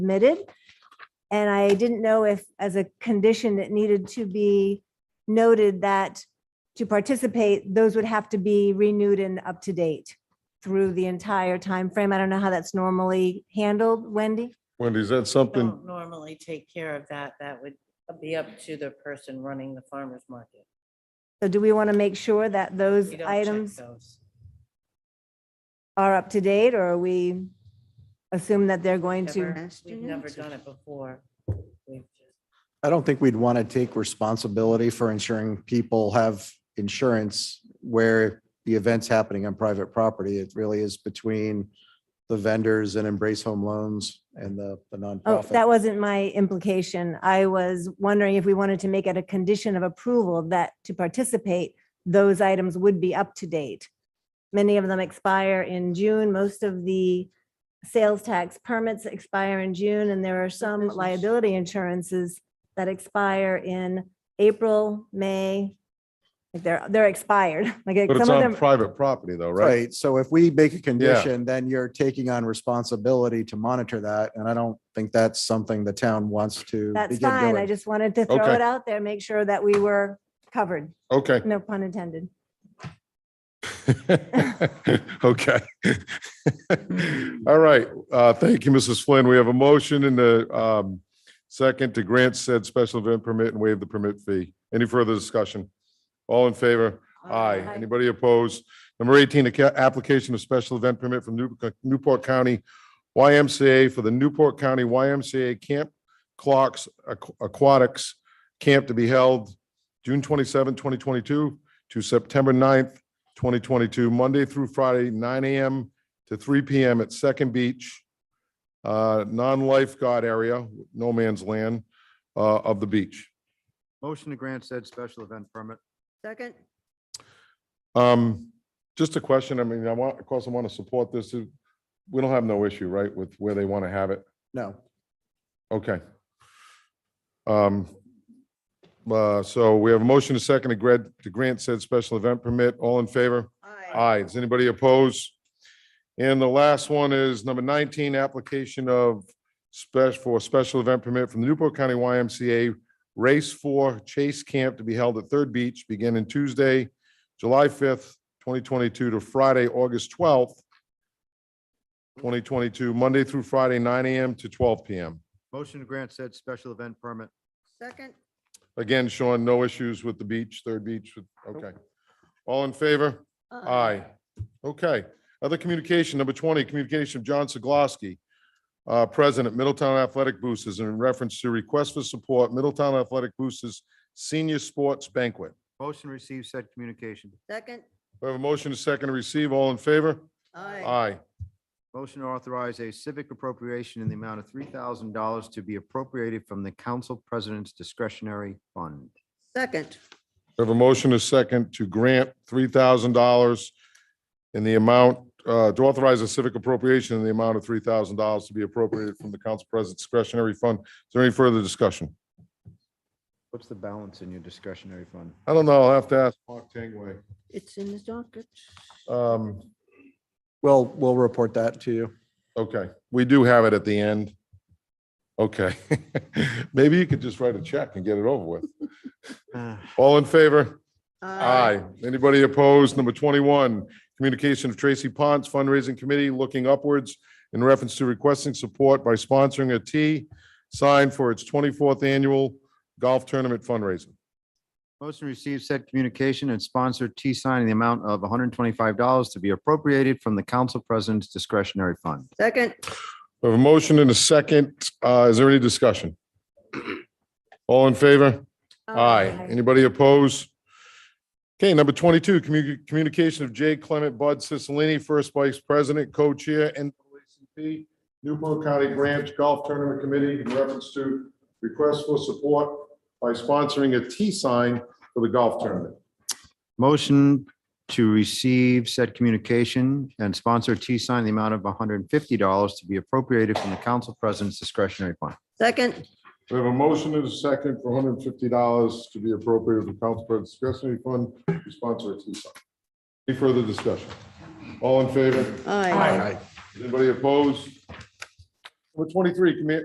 submitted. And I didn't know if, as a condition, it needed to be noted that to participate, those would have to be renewed and up to date through the entire time frame. I don't know how that's normally handled, Wendy. Wendy, is that something, don't normally take care of that. That would be up to the person running the farmer's market. So do we want to make sure that those We don't check items those. are up to date or are we assume that they're going to? Never- We've never done it before. We've just- I don't think we'd want to take responsibility for ensuring people have insurance where the event's happening on private property. It really is between the vendors and Embrace Home Loans and the the Oh, that nonprofit. wasn't my implication. I was wondering if we wanted to make it a condition of approval that to participate, those items would be up to date. Many of them expire in June. Most of the sales tax permits expire in June, and there are some business. liability insurances that expire in April, May. Like they're, they're expired. Oh, Like but it's some of on them, private property though, right? Right, so if we make a condition, then you're taking on responsibility to monitor that, and I don't think that's something the town wants to. that's begin fine. I doing. just wanted to throw Okay. it out there, make sure that we were covered. Okay. No pun intended. Okay. All right. Uh, Thank you, Mrs. Flynn. We have a motion and a um, second to grant said special event permit and waive the permit fee. Any further discussion? All in favor? Aye. Aye. Anybody opposed? Number 18, a ca- application of special event permit from Newp- Newport County YMCA for the Newport County YMCA Camp Clocks Aqu- Aquatics Camp to be held June 27, 2022 to September 9th, 2022, Monday through Friday, nine AM to three PM at Second Beach, uh, non-lifeguard area, no man's land uh, of the beach. Motion to grant said special event permit. Second, Um, just a question. I mean, I want, of course, I want to support this. We don't have no issue, right, with where they want to have it? No, Okay. Um, uh, so we have a motion to second to grant, to grant said special event permit. All in favor? aye. Aye. Does anybody oppose? And the last one is number nineteen, application of special, for a special event permit from the Newport County YMCA Race for Chase Camp to be held at Third Beach beginning Tuesday, July fifth, twenty twenty-two to Friday, August twelfth, twenty twenty-two, Monday through Friday, nine AM to twelve PM. Motion to grant said special event permit. Second, Again, Sean, no issues with the beach, Third Beach, okay. All in favor? Uh-uh. Aye. Okay. Other communication, number 20, communication of John Zaglavsky, uh, President, Middletown Athletic Boosters, in reference to request for support, Middletown Athletic Boosters Senior Sports Banquet. Motion to receive said communication. Second, We have a motion to second to receive. All in favor? aye. Aye. Motion to authorize a civic appropriation in the amount of three thousand dollars to be appropriated from the council president's discretionary fund. Second, We have a motion to second to grant $3,000 in the amount, uh, to authorize a civic appropriation in the amount of $3,000 to be appropriated from the council president's discretionary fund. Is there any further discussion? What's the balance in your discretionary fund? I don't know. I'll have to ask Mark Tangway. it's in the docket. Um, we'll, we'll report that to you. Okay, we do have it at the end. Okay, maybe you could just write a check and get it over with. All in favor? Aye. Anybody opposed? Number 21, communication of Tracy Ponce Fundraising Committee looking upwards in reference to requesting support by sponsoring a T sign for its 24th annual golf tournament fundraiser. Motion to receive said communication and sponsor T sign in the amount of one hundred and twenty-five dollars to be appropriated from the council president's discretionary fund. Second, We have a motion and a second. Uh, Is there any discussion? All in favor? Aye. Aye. Anybody opposed? Okay, number 22, commu- communication of Jay Clement Bud Cicilline, First Vice President, Co-Chair, NAACP, Newport County Branch Golf Tournament Committee in reference to request for support by sponsoring a T-sign for the golf tournament. Motion to receive said communication and sponsor T sign in the amount of one hundred and fifty dollars to be appropriated from the council president's discretionary fund. second, We have a motion and a second for $150 to be appropriated from Council President's discretionary fund to sponsor a T-sign. Any further discussion? All in favor? aye. Anybody opposed? Number 23, commu-